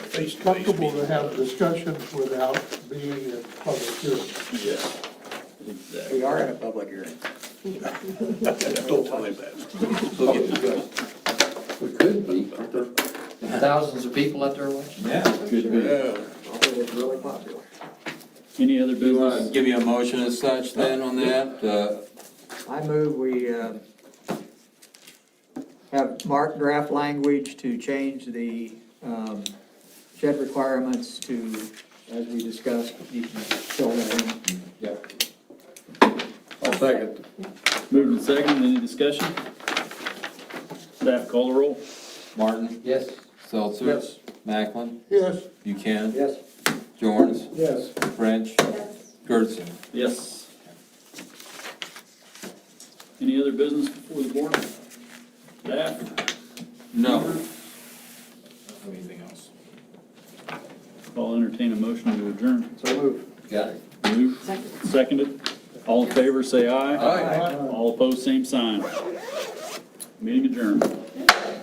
face-to-face comfortable to meeting. have discussions without being in public hearing. Yeah, exactly. We are in a public hearing. Don't play that. We'll get discussed. We could be, but there are thousands of people out there watching. Yeah. Could be. Although it's really popular. Any other Do you want to business? give you a motion as such then on that? Uh, I move we uh, have Mark draft language to change the um, shed requirements to, as we discussed, you can fill that in. I'll second. Moved and seconded, any discussion? Staff call the roll. Martin? Yes. Seltzer? Yes. Macklin? Yes, Buchanan? Yes. Jorns? Yes. French? Gertson? Yes. Any other business before the board? Staff, No. Anything else? I'll entertain a motion to adjourn. So move. Got it. Moved, seconded, all in favor, say aye. Aye. All opposed, same sign. Meeting adjourned.